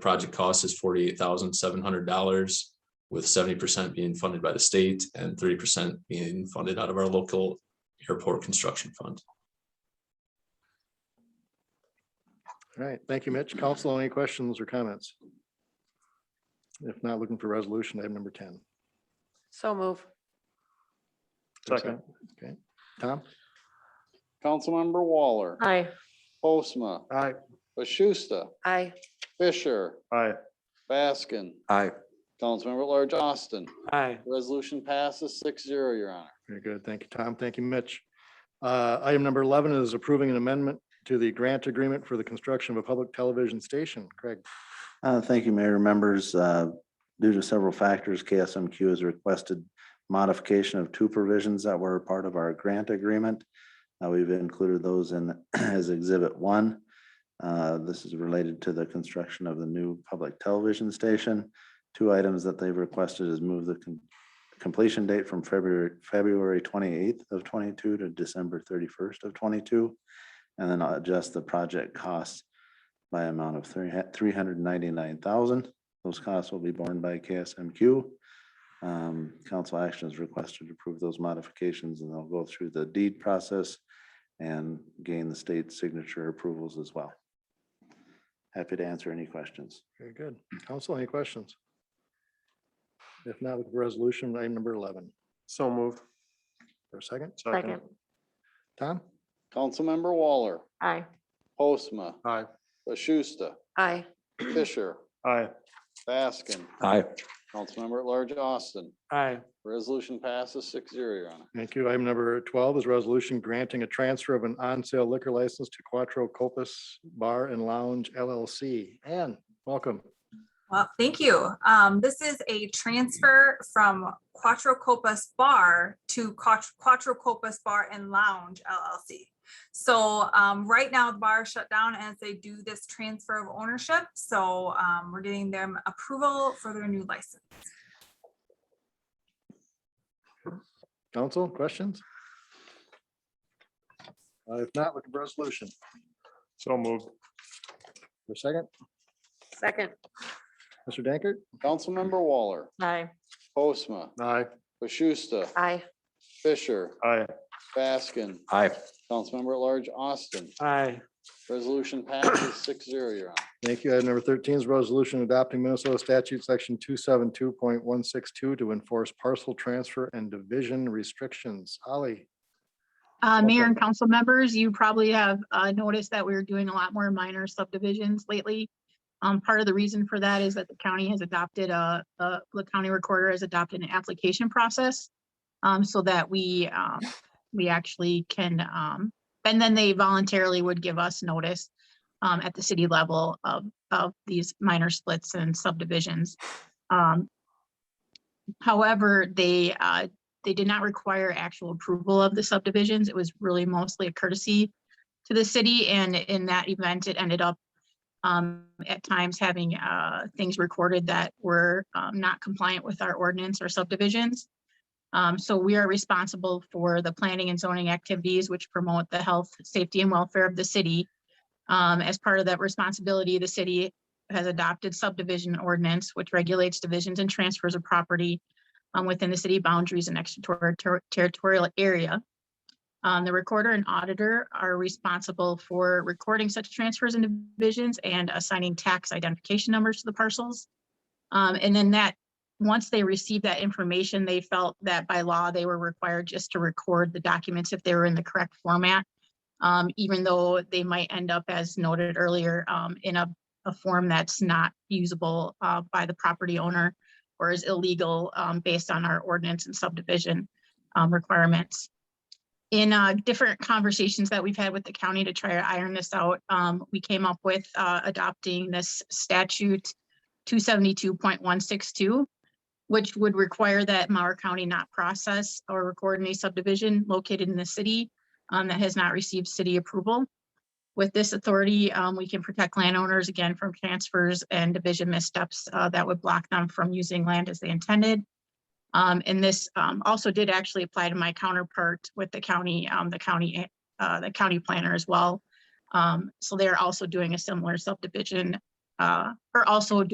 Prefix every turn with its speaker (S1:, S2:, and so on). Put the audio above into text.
S1: project cost is forty-eight thousand seven hundred dollars, with seventy percent being funded by the state and thirty percent being funded out of our local airport construction fund.
S2: All right, thank you, Mitch. Council, any questions or comments? If not, looking for resolution, item number ten.
S3: So move.
S4: Second.
S2: Okay, Tom?
S5: Councilmember Waller,
S3: Aye.
S5: Postma,
S4: Aye.
S5: Bashusta,
S3: Aye.
S5: Fisher,
S4: Aye.
S5: Baskin.
S4: Aye.
S5: Councilmember at Large Austin.
S6: Aye.
S5: Resolution passes six zero, Your Honor.
S2: Very good. Thank you, Tom. Thank you, Mitch. Uh, Item number eleven is approving an amendment to the grant agreement for the construction of a public television station. Craig?
S7: Uh, Thank you, Mayor. Members, uh, due to several factors, KSMQ has requested modification of two provisions that were part of our grant agreement. Uh, We've included those in as Exhibit One. Uh, This is related to the construction of the new public television station. Two items that they've requested is move the com- completion date from February, February twenty-eighth of twenty-two to December thirty-first of twenty-two. And then adjust the project costs by amount of three, three hundred ninety-nine thousand. Those costs will be borne by KSMQ. Um, council action is requested to approve those modifications and they'll go through the deed process and gain the state's signature approvals as well. Happy to answer any questions.
S2: Very good. Council, any questions? If not, looking for resolution, item number eleven.
S4: So moved.
S2: For a second,
S3: Second.
S2: Tom?
S5: Councilmember Waller,
S3: Aye.
S5: Postma,
S4: Aye.
S5: Bashusta,
S3: Aye.
S5: Fisher,
S4: Aye.
S5: Baskin.
S7: Aye.
S5: Councilmember at Large Austin.
S6: Aye.
S5: Resolution passes six zero, Your Honor.
S2: Thank you. Item number twelve is resolution granting a transfer of an on-sale liquor license to Quattro Copas Bar and Lounge LLC. Ann, welcome.
S8: Well, thank you. Um, this is a transfer from Quattro Copas Bar to Quat- Quattro Copas Bar and Lounge LLC. So, um, right now the bar is shut down as they do this transfer of ownership. So, um, we're getting them approval for their new license.
S2: Council, questions? Uh, If not, looking for resolution.
S4: So moved.
S2: For a second,
S3: Second.
S2: Mr. Dankert?
S5: Councilmember Waller,
S3: Aye.
S5: Postma,
S4: Aye.
S5: Bashusta,
S3: Aye.
S5: Fisher,
S4: Aye.
S5: Baskin.
S7: Aye.
S5: Councilmember at Large Austin.
S6: Aye.
S5: Resolution passes six zero, Your Honor.
S2: Thank you. Item number thirteen is resolution adopting Minnesota statute section two seven two point one six two to enforce parcel transfer and division restrictions. Holly,
S9: Uh, Mayor
S2: Okay.
S9: and council members, you probably have, uh, noticed that we're doing a lot more minor subdivisions lately. Um, part of the reason for that is that the county has adopted a, uh, the county recorder has adopted an application process. Um, so that we, um, we actually can, um, and then they voluntarily would give us notice um, at the city level of, of these minor splits and subdivisions. Um, however, they, uh, they did not require actual approval of the subdivisions. It was really mostly a courtesy to the city, and in that event, it ended up um, at times having uh, things recorded that were um, not compliant with our ordinance or subdivisions. Um, So we are responsible for the planning and zoning activities which promote the health, safety, and welfare of the city. Um, As part of that responsibility, the city has adopted subdivision ordinance, which regulates divisions and transfers of property um, within the city boundaries and extraterritorial area. Um, the recorder and auditor are responsible for recording such transfers and divisions and assigning tax identification numbers to the parcels. Um, and then that, once they received that information, they felt that by law, they were required just to record the documents if they were in the correct format. um, even though they might end up, as noted earlier, um, in a, a form that's not usable, uh, by the property owner or is illegal um, based on our ordinance and subdivision um, requirements. In uh, different conversations that we've had with the county to try to iron this out, um, we came up with uh, adopting this statute 272.162, which would require that Mauer County not process or record any subdivision located in the city um, that has not received city approval. With this authority, um, we can protect landowners again from transfers and division missteps uh, that would block them from using land as they intended. Um, and this um, also did actually apply to my counterpart with the county, um, the county, uh, the county planner as well. Um, so they're also doing a similar subdivision uh, are also